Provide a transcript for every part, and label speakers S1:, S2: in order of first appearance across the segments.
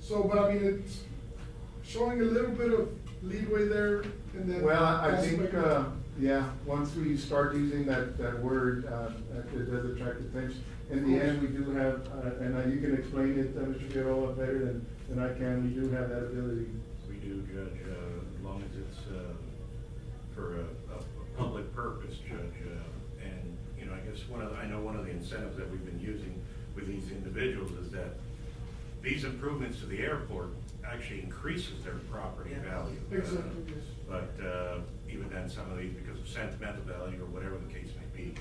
S1: So, but I mean, it's showing a little bit of leeway there and then.
S2: Well, I I
S1: that's
S2: think,
S1: like-
S2: uh, yeah, once we start using that, that word, uh, it it does attract attention. In the end, we do have, uh, and uh, you can explain it, uh, Mr. Figueroa, better than, than I can, we do have that ability.
S3: We do, Judge, uh, as long as it's uh, for a, a a public purpose, Judge. uh, And, you know, I guess one of, the- I know one of the incentives that we've been using with these individuals is that these improvements to the airport actually increases their property
S4: Yeah.
S3: value. uh,
S1: Exactly, yes.
S3: But uh, even then, some of these, because of sentimental value or whatever the case may be,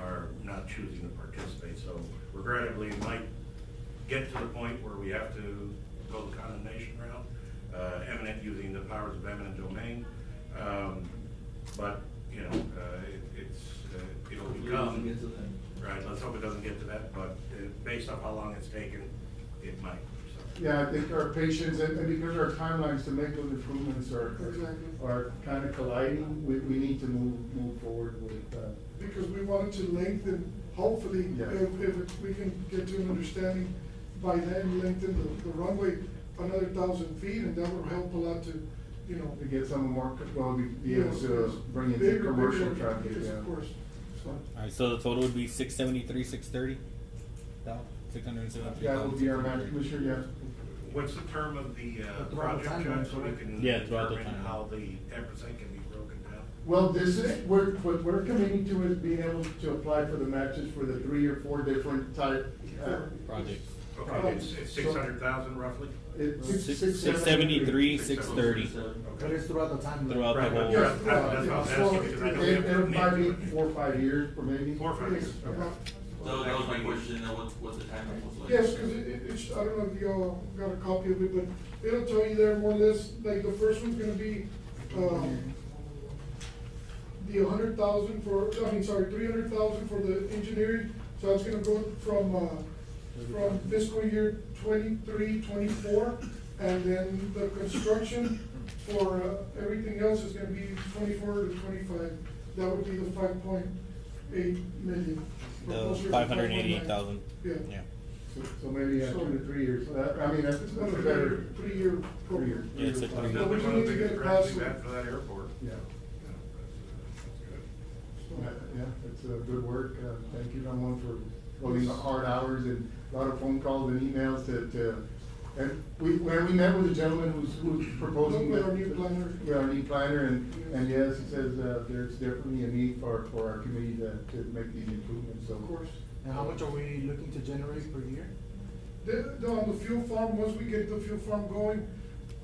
S3: are not choosing to participate. So regrettably, it might get to the point where we have to go the condemnation route, uh, eminent, using the powers of eminent domain. Um, But, you know, uh, it- it's, uh, it'll become. Right, let's hope it doesn't get to that, but uh, based on how long it's taken, it might, so.
S2: Yeah, I think our patience, and and because our timelines to make those improvements are,
S1: Exactly.
S2: are kind of colliding, we, we need to move, move forward with, uh,
S1: Because we wanted to lengthen, hopefully,
S2: Yeah.
S1: if, if we can get to an understanding, by then lengthen the, the runway another thousand feet and that will help a lot to, you know.
S2: to get some more, well, we be able
S1: you know,
S2: to bring in the
S1: bigger,
S2: commercial
S1: bigger,
S2: traffic,
S1: yes,
S2: yeah.
S1: Of course, so.
S5: All right, so the total would be six seventy three, six thirty. Six hundred and seventy three.
S2: That will be our match, Commissioner,
S3: What's the term of the uh,
S4: Throughout the
S3: project,
S4: timeline,
S3: Judge, so we
S4: correct?
S3: can
S5: Yeah, throughout the
S3: determine
S5: timeline.
S3: how the ten percent can be broken down?
S2: Well, this is, we're, what we're committing to is being able to apply for the matches for the three or four different type. uh,
S5: Projects.
S3: Okay, it's, it's six hundred thousand roughly?
S2: It's six,
S5: Six-
S2: six.
S5: six seventy three, six
S3: 673,
S5: thirty.
S4: But it's throughout the time.
S5: Throughout the
S3: Right,
S5: whole.
S3: but
S2: Yeah,
S3: that's what I was
S2: yeah, so
S3: asking, because I know we
S2: in,
S3: have to
S2: in five,
S3: commit
S2: eight,
S3: to it.
S2: four, five years, or maybe.
S3: Four, five years.
S2: Yeah.
S1: About-
S6: So that was my question, uh, what, what the timing was like?
S1: Yes, because it, it- it's, I don't know if y'all got a copy of it, but it'll tell you there more or less, like, the first one's gonna be, um, the hundred thousand for, I mean, sorry, three hundred thousand for the engineering, so that's gonna go from, uh, from fiscal year twenty-three, twenty-four, and then the construction for uh, everything else is gonna be twenty-four to twenty-five. That would be the five point eight million. or
S5: The
S1: closer to
S5: five hundred eighty eight thousand.
S1: 5.9.
S5: Yeah.
S2: So so maybe uh, two to three years, So that- I mean, that's,
S1: It's
S2: that's
S1: about
S2: a
S1: a
S2: better.
S1: three-year, three-year program.
S5: Yeah, it's a
S2: three-year plan.
S5: three-year.
S3: Another
S1: we
S3: one of
S1: need to
S3: the biggest
S1: get
S3: grants we've
S1: past-
S3: had for that airport.
S2: Yeah,
S3: Yeah, that's,
S2: yeah,
S1: So-
S2: yeah, it's uh, good work, uh, thank you, Ramon, for all these hard hours and a lot of phone calls and emails that, uh, and we, when we met with the gentleman who's, who's proposing.
S1: With our
S2: that-
S1: new planner.
S2: With our new planner, and, and yes, he says, uh, there's definitely a need for, for our committee to, to make these improvements, so.
S1: Of course.
S4: And how much are we looking to generate per year?
S1: The, the, on um, the fuel farm, once we get the fuel farm going,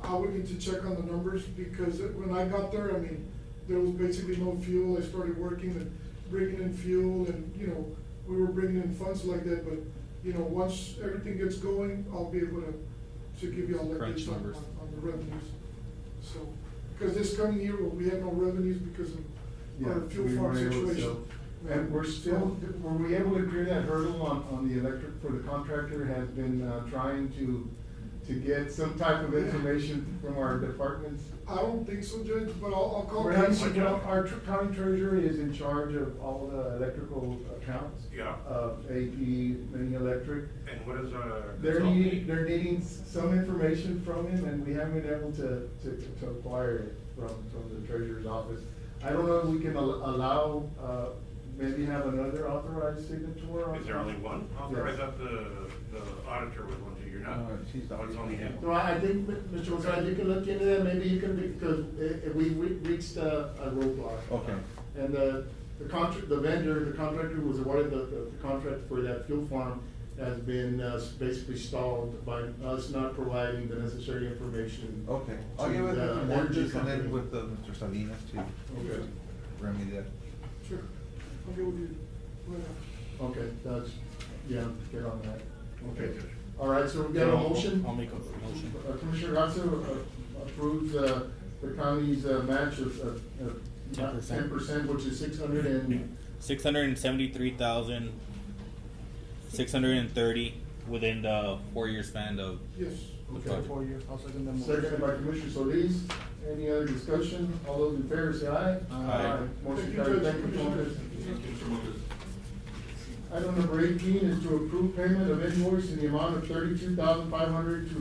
S1: I would need to check on the numbers because it- when I got there, I mean, there was basically no fuel. I started working and bringing in fuel and, you know, we were bringing in funds like that, but, you know, once everything gets going, I'll be able to, to give you all that
S5: Crunch
S1: data on,
S5: numbers.
S1: on the revenues. So, because this coming year, we had no revenues because of
S2: Yeah,
S1: our fuel
S2: we
S1: farm
S2: were able to
S1: situation.
S2: sell. And we're still, were we able to clear that hurdle on, on the electric, for the contractor has been, uh, trying to, to get some type of information from our departments?
S1: I don't think so, Judge, but I'll, I'll call.
S2: We're having,
S1: Casey.
S2: you know, our tr- county treasurer is in charge of all the electrical accounts.
S3: Yeah.
S2: Of AP, mini electric.
S3: good. And what is, uh?
S2: They're
S3: consulting?
S2: needing, they're needing s- some information from him, and we haven't been able to, to, to acquire it from, from the treasurer's office. I don't know if we can al- allow, uh, maybe have another authorized signature on.
S3: Is there only one? Or I
S2: Yes.
S3: thought the, the auditor was one too, you're not?
S6: No, she's the
S3: Oh, It's only him.
S2: No, I I think, Mi- Mr. Gonzalez, you can look into that, maybe you can, because i- i- we, we reached a, a roadblock.
S6: Okay.
S2: And the, the contract, the vendor, the contractor who was awarded the, the the contract for that fuel farm has been uh, basically stalled by us not providing the necessary information.
S6: Okay, I'll
S2: to
S6: give it
S2: the
S6: to
S2: energy
S6: Montes and
S2: company.
S6: then with uh, Mr. Salinas to
S2: Okay.
S6: remedy that.
S1: Sure, I'll get with you. right now.
S2: Okay, that's, yeah, get on that.
S3: Okay, Judge.
S2: All right, so we got a
S5: I'll-
S2: motion?
S5: I'll make a motion.
S2: Uh, Commissioner Gatto uh, approves uh, the county's uh, match of, of,
S5: Ten
S2: of
S5: percent.
S2: ten percent, which is six hundred and,
S5: Six hundred and seventy three thousand six hundred and thirty within the four year span of
S1: Yes.
S5: the
S2: Okay.
S5: project.
S4: For year, I'll second the motion.
S2: seconded by Commissioner Solis. Any other discussion? All those in favor say aye. Motion
S1: Thank you,
S2: carries.
S1: Judge.
S2: Thank you, Commissioner.
S6: Thank you, Mr. Montes.
S2: Item number eighteen is to approve payment of invoice in the amount of thirty-two thousand five hundred to